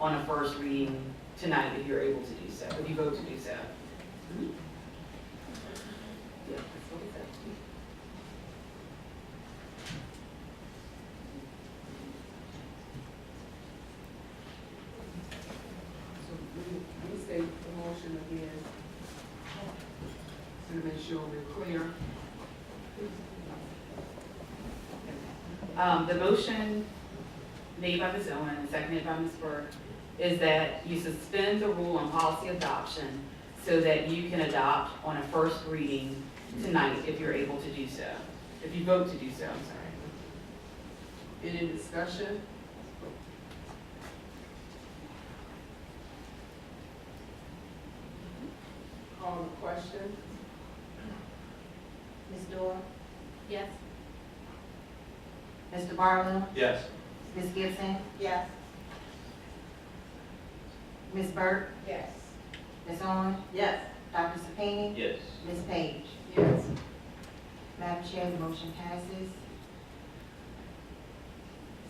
on a first reading tonight if you're able to do so, if you vote to do so. Yeah, that's what it says. So let me, let me state the motion again. To make sure we're clear. Um, the motion made by Ms. Owen and seconded by Ms. Burke is that you suspend the rule on policy adoption so that you can adopt on a first reading tonight if you're able to do so, if you vote to do so, I'm sorry. Any discussion? Call the question. Ms. Dorr? Yes. Mr. Barlow? Yes. Ms. Gibson? Yes. Ms. Burke? Yes. Ms. Owen? Yes. Dr. Sapini? Yes. Ms. Page? Yes. Madam Chair, the motion passes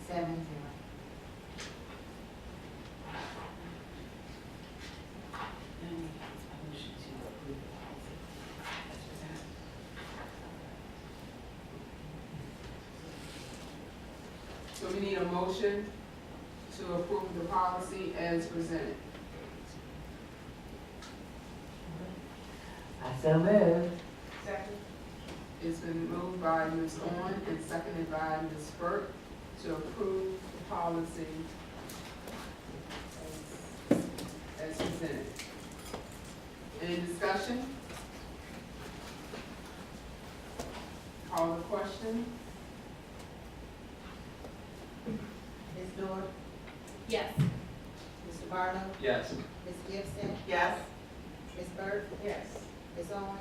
seven zero. Then we have a motion to approve the policy as presented. So we need a motion to approve the policy as presented. I so move. Second. It's been moved by Ms. Owen and seconded by Ms. Burke to approve the policy as- as presented. Any discussion? Call the question? Ms. Dorr? Yes. Mr. Barlow? Yes. Ms. Gibson? Yes. Ms. Burke? Yes. Ms. Owen?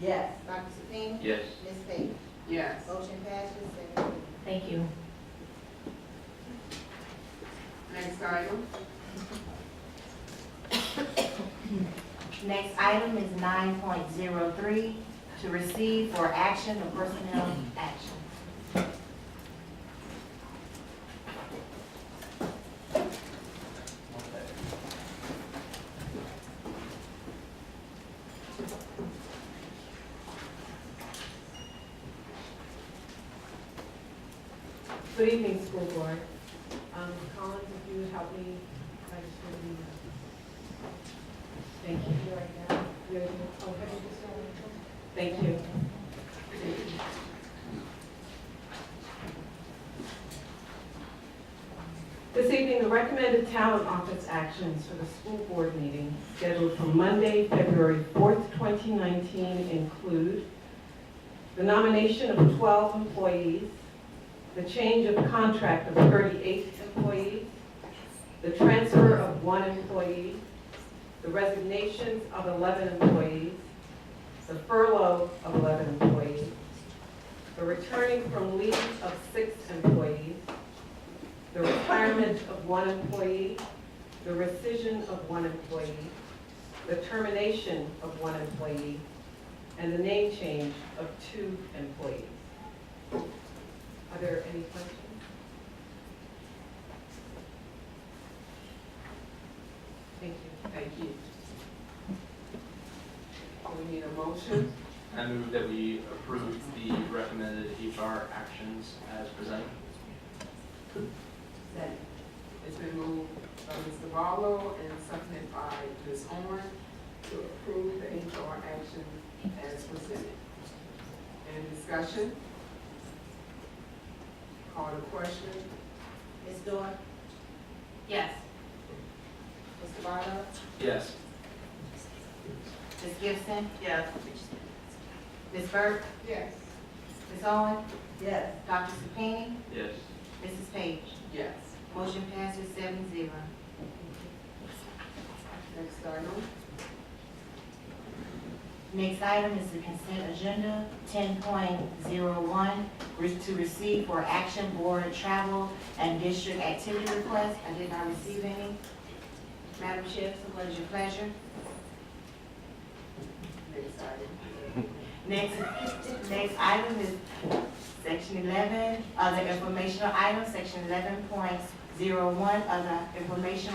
Yes. Dr. Sapini? Yes. Ms. Page? Yes. Motion passes seven zero. Thank you. Next item? Next item is nine point zero three, to receive for action of personnel action. Good evening, school board. Um, Collins, if you would help me, I just want to, thank you right now. You're the- oh, can you just, uh, Thank you. This evening, the recommended talent office actions for the school board meeting scheduled for Monday, February 4th, 2019 include the nomination of 12 employees, the change of contract of 38 employees, the transfer of one employee, the resignations of 11 employees, the furlough of 11 employees, the returning from leave of six employees, the retirement of one employee, the rescission of one employee, the termination of one employee, and the name change of two employees. Are there any questions? Thank you. Thank you. We need a motion. I move that we approve the recommended HR actions as presented. It's been moved by Mr. Barlow and seconded by Ms. Owen to approve the HR action as presented. Any discussion? Call the question? Ms. Dorr? Yes. Mr. Barlow? Yes. Ms. Gibson? Yes. Ms. Burke? Yes. Ms. Owen? Yes. Dr. Sapini? Yes. Mrs. Page? Yes. Motion passes seven zero. Next item? Next item is the consent agenda, ten point zero one, to receive for action board travel and district activity requests. I did not receive any. Madam Chair, so what is your pleasure? Next item. Next, next item is section eleven, other informational items, section eleven point zero one, other informational